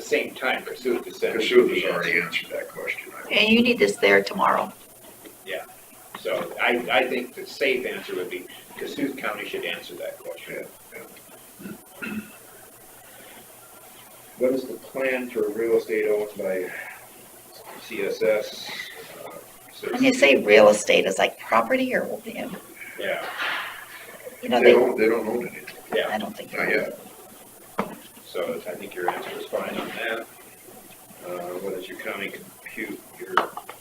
same time pursuant to seventy. Kashuba has already answered that question. I And you need this there tomorrow. So I, I think the safe answer would be Cassuth County should answer that question. What is the plan for real estate owned by CSS? uh, When you say real estate, it's like property or, you Yeah, know, They they, don't, they don't own anything, yeah, I don't think. not yet. so I think your answer is fine on that. Uh, what is your county compute, your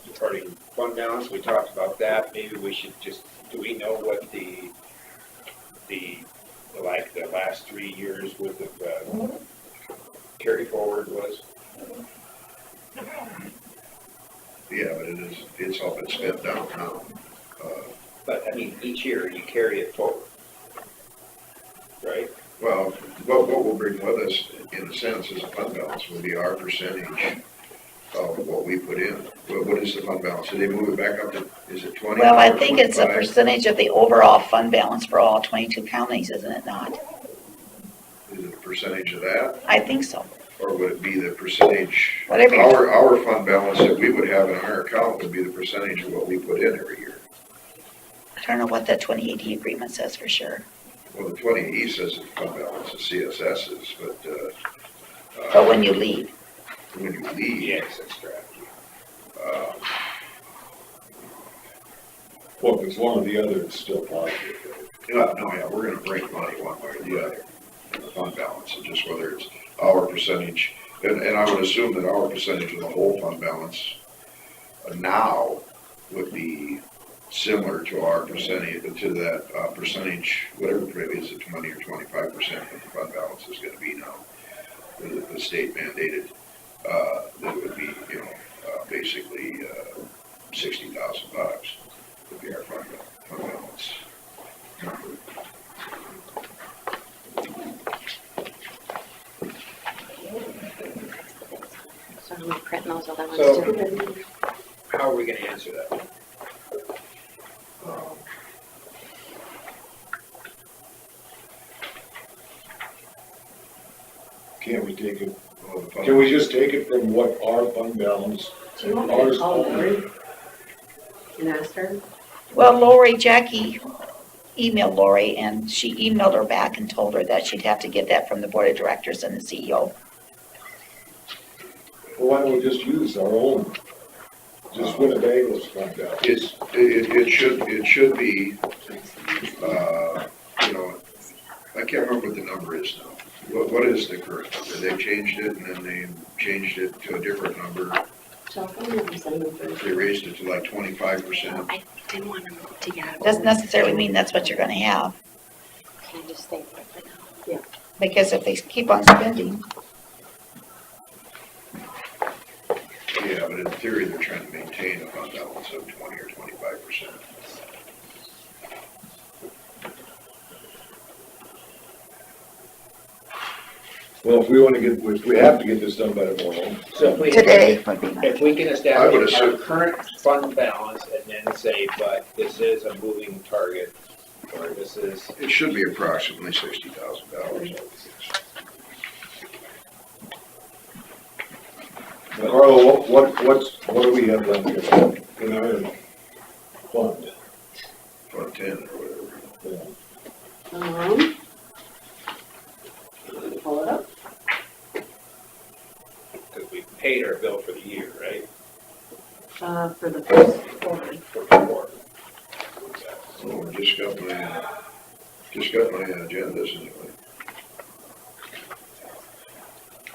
departing fund balance, we talked about that, maybe we should just, do we know what the, the, like, the last three years worth of, uh, carry forward was? Yeah, but it is, it's all been spent down now. Uh, But, I mean, each year you carry it forward. Right? Well, what, what we'll bring with us, in a sense, is a fund balance, will be our percentage of what we put in. What, what is the fund balance? Did they move it back up to, is it twenty? Well, I think it's a 25? percentage of the overall fund balance for all twenty-two counties, isn't it not? Is it a percentage of that, I think so. or would it be the percentage? Whatever you- Our, our fund balance that we would have in our account would be the percentage of what we put in every year. I don't know what that twenty eighty agreement says for sure. Well, the twenty E says it's fund balance, the CSS is, but, uh. uh, But when you leave, When you leave. that's correct. uh, Well, if it's one or the other, it's still positive. right? Yeah, no, yeah, we're gonna break money one way or the other in the fund balance, and just whether it's our percentage, and, and I would assume that our percentage of the whole fund balance uh, now would be similar to our percentage, to that, uh, percentage, whatever it is, it's twenty or twenty-five percent of the fund balance is gonna be now. The, the state mandated, uh, that would be, you know, uh, basically, uh, sixty thousand bucks would be our fund, bal- fund balance. So I'm printing those other ones So- too. How are we gonna answer that? Um, Can't we take it, Well, the fund- can we just take it from what our fund balance? Do you want me to ours call only? Lori and ask her? well, Lori, Jackie emailed Lori and she emailed her back and told her that she'd have to get that from the board of directors and the E CEO. Well, Why don't we just use our own, just Winnebago's fund balance? It's, it, it should, it should be, uh, you know, I can't remember what the number is now. What, what is the current number? They changed it and then they changed it to a different number. So I'll go and send them first. They raised it to like twenty-five percent. I didn't want them to get out. of Doesn't order. necessarily mean that's what you're gonna have, Can I just stay put for now? because if they keep on spending, Yeah, but in theory, they're trying to maintain a fund balance of twenty or twenty-five percent. Well, if we wanna get, if we have to get this done by tomorrow. So if we- today would be nice. If we can I would establish our assume- current fund balance and then say, but this is a moving target, or this is, It should be approximately sixty thousand dollars. Carl, what, what, what's, what do we have left here in our fund? Fund ten or whatever. Yeah. Um. Pull it up. because we paid our bill for the year, right? Uh, for the first quarter. For the war. Oh, I just got my, uh, just got my agendas anyway.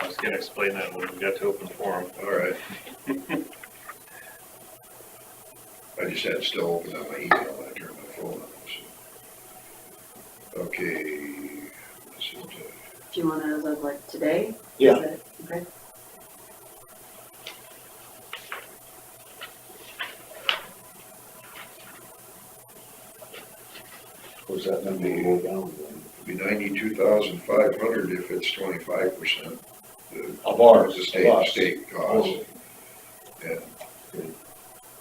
I was gonna explain that when we got to open forum. All right. I just had it still open on my email, I turned my phone on, so. Okay, let's see, uh, Do you want to live like today? Is Yeah. it- Okay. Of course, that number will go down then. it'd be ninety-two thousand five hundred if it's twenty-five percent. Of ours, The of state, us. state Oh. cost. And-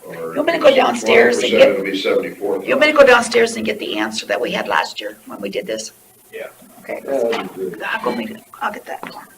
or You want me to if go it's downstairs and 20%, get- It'll be seventy-four You want me to go downstairs and get the answer that we had last year when we did this? Yeah. Okay. Yeah, that'd be good. I'll go make it, I'll get that.